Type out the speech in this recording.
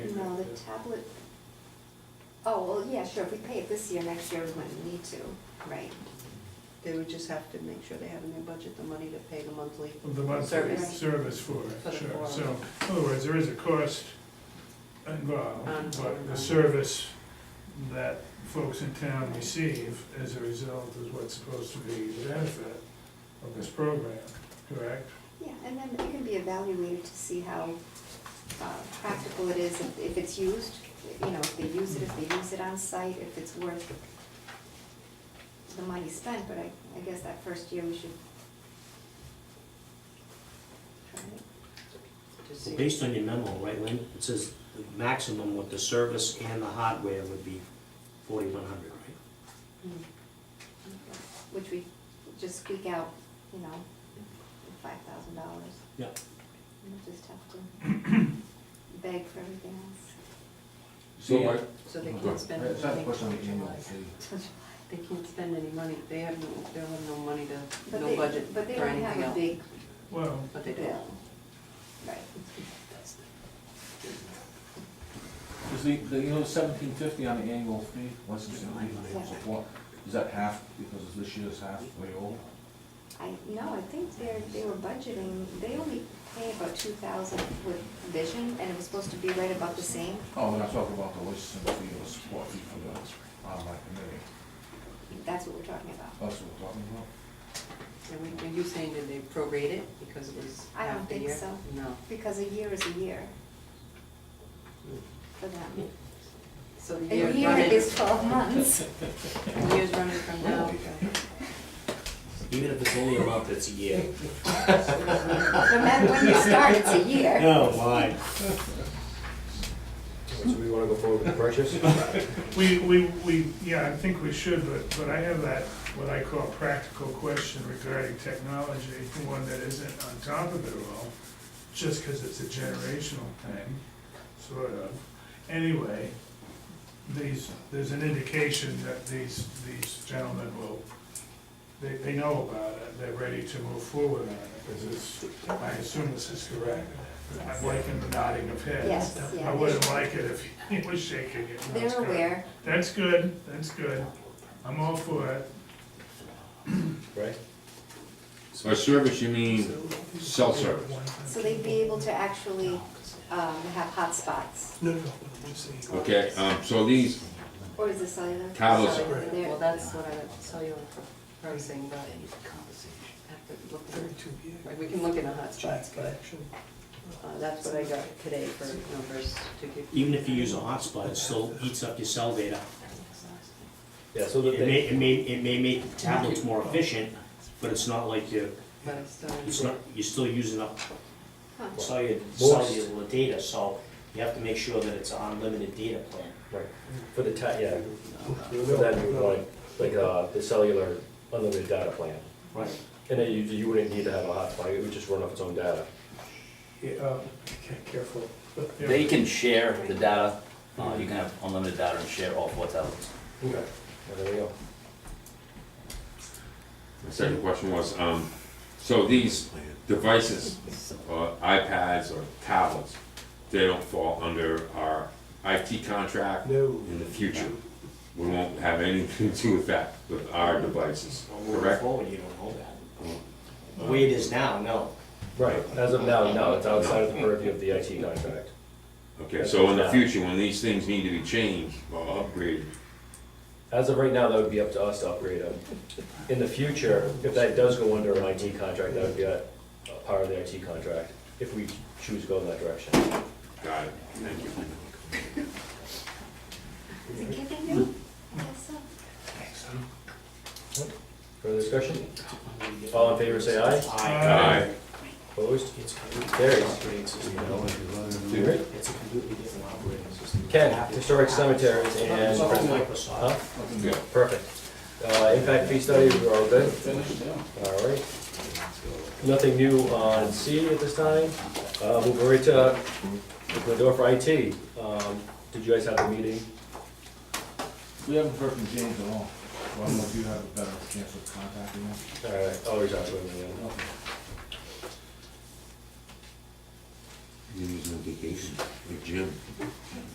tablet? Oh, well, yeah, sure, if we pay it this year, next year we wouldn't need to, right? They would just have to make sure they have in their budget the money to pay the monthly. of the monthly Service. service for For it, the sure. forum. So, in other words, there is a cost involved, but the Ongoing. service that folks in town receive as a result is what's supposed to be the benefit of this program, correct? Yeah, and then it can be evaluated to see how uh, practical it is, if if it's used, you know, if they use it, if they use it on site, if it's worth the money spent, but I, I guess that first year we should. try it. to see. Based on your memo, right, Lynn, it says the maximum with the service and the hardware would be forty-one hundred, right? Mm. Mm-hmm. Which we just squeak out, you know, five thousand dollars. Yeah. We'll just have to beg for everything else. So Yeah. my, So they can't spend. That's not a anything question on till the annual July. fee. They can't spend any money, they have no, they'll have no money to, But no they- budget But they for don't have anything a else. big Well, But they do. bill, right? Is the, the, you know, seventeen fifty on the annual fee, licensing Yeah. fee, annual support, is that half, because this year's half way old? I, no, I think they're, they were budgeting, they only pay about two thousand with vision, and it was supposed to be right about the same. Oh, when I talk about the licensing fee or the support fee for the, on my committee, That's what we're talking about. that's what we're talking about? And we- Are you saying that they prorate it because it was I don't half the think year? so. No. Because a year is a year for them. So the A year's year running, is twelve months. the year's running from now. Even if it's only a month, it's a year. No matter when you start, it's a year. Oh, my. So we wanna go forward with the purchase? we, we, we, yeah, I think we should, but, but I have that, what I call practical question regarding technology, one that isn't on top of it all, just because it's a generational thing, sort of. Anyway, these, there's an indication that these, these gentlemen will, they, they know about it, they're ready to move forward on it, because it's, I assume this is correct. I'm liking the nodding of heads. Yes, yeah. I wouldn't like it if he was shaking it. No, it's They're correct. aware. That's good, that's good. I'm all for it. Right? by service, you mean cell service? So they'd be able to actually um, have hotspots, Okay, um, so these, or is it cellular? Tablets. Cellular, they're- Well, that's what I saw you pricing, but. have to look for- right, We can look in the hotspots, but uh, that's what I got today for numbers to give. Even if you use a hotspot, it still eats up your cell data. Yeah, so that It may, they, it may, it may make tablets more efficient, but it's not like you're, But I still. it's not, you're still using up Huh. cellular, Most- cellular data, so you have to make sure that it's an unlimited data plan. right, for the ta, yeah, for that, you would like, like, uh, the cellular unlimited data plan. Right. And then you, you wouldn't need to have a hotspot, it would just run off its own data. um, Careful. They can share the data, uh, you can have unlimited data and share all four tablets. Okay. There we go. my second question was, um, so these devices, uh, iPads or tablets, they don't fall under our IT contract in the future? We won't have anything to do with that, with our devices, Well, Moving correct? forward, you don't know that. The way it is now, no. Right, as of now, no, it's outside of the purview of the IT contract. Okay, so in the future, when these things need to be changed or upgraded, As of right now, that would be up to us to upgrade them. In the future, if that does go under an IT contract, that would be a a part of the IT contract, if we choose to go in that direction. got it, thank you. Is it giving you? Yes, Further discussion? All in favor, say aye. Aye. Opposed? It's completely Carries. operating system, you know, Alright. it's a completely different operating system. Ken, historic cemeteries and, Something huh? like Uh-huh. Microsoft. Yeah. Perfect. Uh, impact fee study, we're all good? Finished, yeah. All right. Nothing new on C at this time. Uh, moving right to, open the door for IT. Um, did you guys have a meeting? We haven't heard from James at all, so I don't know if you have a better chance of contacting him. All right, I'll reach out to him again. He was on vacation with Jim.